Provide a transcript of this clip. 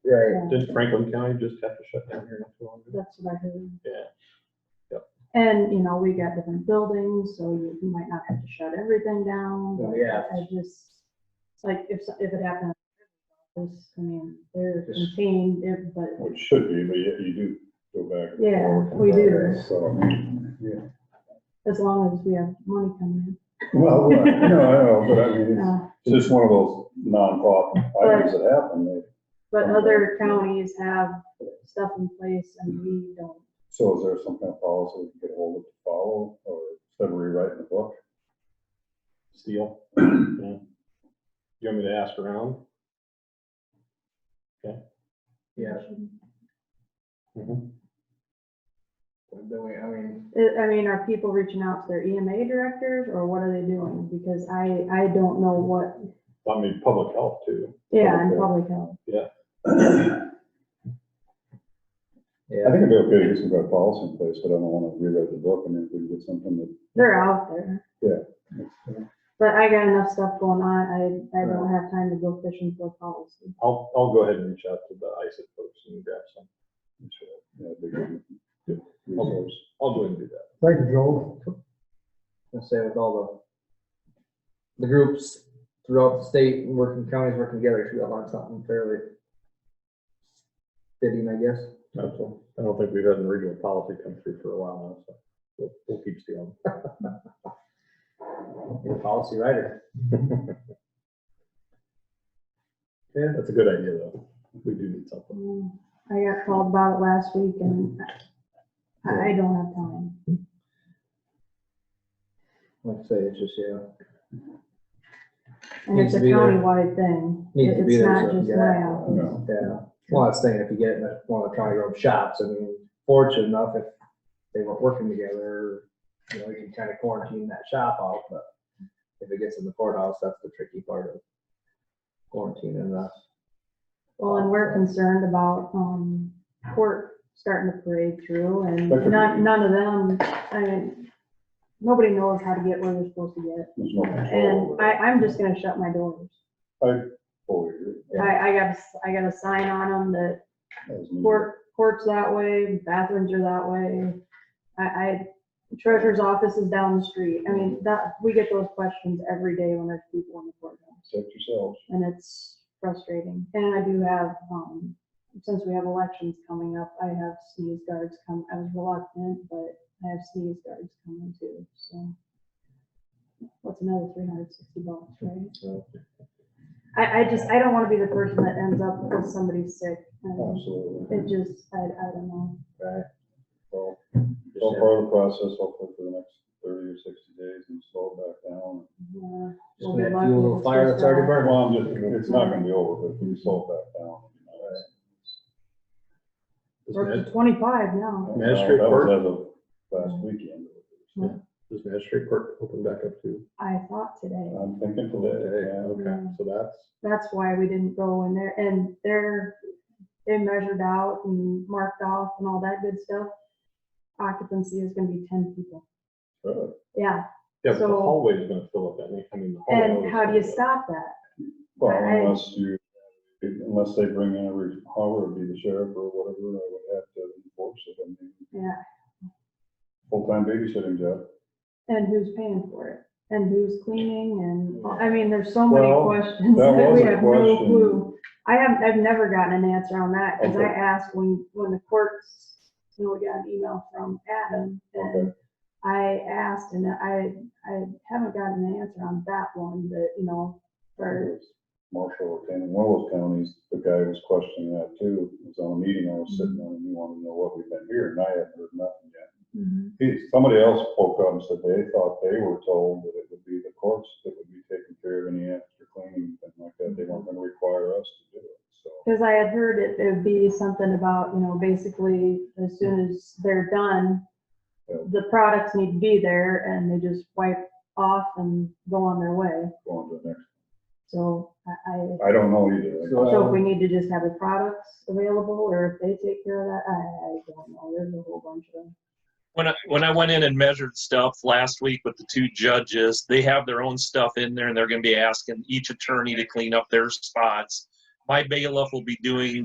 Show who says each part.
Speaker 1: Right.
Speaker 2: Didn't Franklin County just have to shut down here not too long ago?
Speaker 1: That's what I heard.
Speaker 2: Yeah.
Speaker 1: And, you know, we got different buildings, so you you might not have to shut everything down.
Speaker 3: Oh,
Speaker 1: but
Speaker 3: yeah.
Speaker 1: I just, it's like, if, so- if it happened, this, I mean, they're
Speaker 3: Just-
Speaker 1: contained, it- but,
Speaker 4: Which should be, but yet you do go back. and
Speaker 1: Yeah,
Speaker 4: forth and
Speaker 1: we do.
Speaker 4: back, So,
Speaker 1: as long as we have money coming
Speaker 4: well, no, I know, but
Speaker 1: in.
Speaker 4: I mean, it's-
Speaker 1: Uh,
Speaker 4: it's just one of those non-pop items that happen. that-
Speaker 1: But other counties have stuff in place and we don't.
Speaker 4: So is there some kind of policy we can get hold of to follow, or instead of rewriting the book?
Speaker 2: Steel. Yeah. You want me to ask around?
Speaker 3: Yeah, Mm-hmm.
Speaker 2: Mhm.
Speaker 3: the way, I mean,
Speaker 1: I- I mean, are people reaching out to their EMA directors or what are they doing? Because I, I don't know what,
Speaker 2: I mean, public health too.
Speaker 1: yeah, and public health.
Speaker 4: I
Speaker 3: yeah,
Speaker 4: think it'd be okay to get some kind of policy in place, but I don't wanna rewrite the book, and if we get something that.
Speaker 1: They're out there.
Speaker 4: that's-
Speaker 1: But I got enough stuff going on. I, I don't have time to go fishing for a policy.
Speaker 2: I'll, I'll go ahead and reach out to the ISID folks and grab some.
Speaker 4: Yeah, big resource.
Speaker 2: I'll go and do that.
Speaker 5: Thank you, Joel.
Speaker 3: let's say with all the, the groups throughout the state, and working counties working together, should have on something fairly fitting, I guess.
Speaker 2: That's all. I don't think we've had an original policy come through for a while now, so we'll, we'll keep stealing.
Speaker 3: You're a policy writer.
Speaker 2: Yeah, that's a good idea though. We do need something.
Speaker 1: Um, I got called about it last week and
Speaker 3: Mm-hmm.
Speaker 1: I- I don't have time.
Speaker 3: Like I say, it's just, yeah,
Speaker 1: And it's
Speaker 3: Needs
Speaker 1: a
Speaker 3: to be there.
Speaker 1: countywide thing.
Speaker 3: Needs to be
Speaker 1: It's
Speaker 3: there,
Speaker 1: not
Speaker 3: so,
Speaker 1: just
Speaker 3: yeah.
Speaker 1: Loyola.
Speaker 4: No.
Speaker 3: yeah. Well, I was thinking if you get in one of the county road shops, I mean, fortunate enough, if they weren't working together, you know, you can kind of quarantine that shop out, but if it gets in the courthouse, that's the tricky part of quarantining that.
Speaker 1: Well, and we're concerned about, um, court starting to parade through and
Speaker 4: That could
Speaker 1: none,
Speaker 4: be-
Speaker 1: none of them, I mean, nobody knows how to get where they're supposed to get.
Speaker 4: There's no control
Speaker 1: And
Speaker 4: over
Speaker 1: I,
Speaker 4: it.
Speaker 1: I'm just gonna shut my doors.
Speaker 4: Fully agree.
Speaker 1: I, I got, a s- I got a sign on them that
Speaker 4: As needed.
Speaker 1: court, court's that way, bathrooms are that way. I, I, treasurer's office is down the street. I mean, that, we get those questions every day when there's people in the courthouse.
Speaker 4: Protect yourselves.
Speaker 1: and it's frustrating. And I do have, um, since we have elections coming up, I have sneeze guards come, I was reluctant, but I have sneeze guards coming too, so. What's another three hundred sixty bucks, right? I, I just, I don't wanna be the person that ends up with somebody sick,
Speaker 4: Oh.
Speaker 1: and it
Speaker 4: Absolutely.
Speaker 1: just, I, I don't know.
Speaker 3: Right.
Speaker 4: Well, it's all part of the process, hopefully for the next thirty or sixty days and slow it back down.
Speaker 1: Yeah,
Speaker 3: Just
Speaker 1: Uh, We'll be
Speaker 3: that
Speaker 1: lucky
Speaker 3: fuel
Speaker 1: it's
Speaker 3: fire
Speaker 1: just
Speaker 3: that's already
Speaker 1: that.
Speaker 3: burning.
Speaker 4: Well, I'm just, it's not gonna be over, but if we slow it back down. you know, it's-
Speaker 2: Does
Speaker 1: We're up
Speaker 2: Mad-
Speaker 1: to twenty-five now,
Speaker 2: Magistrate
Speaker 4: That was
Speaker 2: court?
Speaker 4: as of last weekend.
Speaker 2: does magistrate court open back up too?
Speaker 1: I thought today.
Speaker 4: I'm thinking
Speaker 2: Today,
Speaker 4: today, yeah.
Speaker 2: okay, so that's,
Speaker 1: that's why we didn't go in there, and they're, they measured out and marked off and all that good stuff. Occupancy is gonna be ten people,
Speaker 4: Really?
Speaker 1: yeah,
Speaker 2: yeah, but the
Speaker 1: So-
Speaker 2: hallway is gonna fill up, I mean, I mean. the hallway
Speaker 1: and
Speaker 2: is
Speaker 1: how do
Speaker 2: gonna
Speaker 1: you
Speaker 2: fill up.
Speaker 1: stop that?
Speaker 4: Well,
Speaker 1: I-
Speaker 4: unless you, unless they bring in every, however, it'd be the sheriff or whatever, I would have to enforce it. I mean,
Speaker 1: Yeah,
Speaker 4: full-time babysitting job.
Speaker 1: and who's paying for it, and who's cleaning, and, I mean, there's so many
Speaker 4: Well,
Speaker 1: questions
Speaker 4: that
Speaker 1: that
Speaker 4: was
Speaker 1: we
Speaker 4: a
Speaker 1: have no
Speaker 4: question.
Speaker 1: clue. I haven't, I've never gotten an answer on that, cause I
Speaker 4: Okay.
Speaker 1: asked when, when the courts, you know, we got an email from Adam, and
Speaker 4: Okay,
Speaker 1: I asked and I, I haven't gotten an answer on that one, but, you know, for,
Speaker 4: It was Marshall, in one of those counties, the guy was questioning that too. It was on a meeting I was sitting on, and he wanted to know what we've been hearing, and I hadn't heard nothing yet. He, somebody else spoke up and said they thought they were told that it would be the courts that would be taking care of any extra cleaning, and like that, they weren't gonna require us to do it, so.
Speaker 1: because I had heard it, it'd be something about, you know, basically, as soon as they're done,
Speaker 4: Yeah.
Speaker 1: the products need to be there and they just wipe off and go on their way.
Speaker 4: Going to the next,
Speaker 1: So I, I,
Speaker 4: I don't know either.
Speaker 1: so if we need to just have the products available or if they take care of that, I, I don't know. There's a whole bunch of them.
Speaker 6: When I, when I went in and measured stuff last week with the two judges, they have their own stuff in there and they're gonna be asking each attorney to clean up their spots. My bailiff will be doing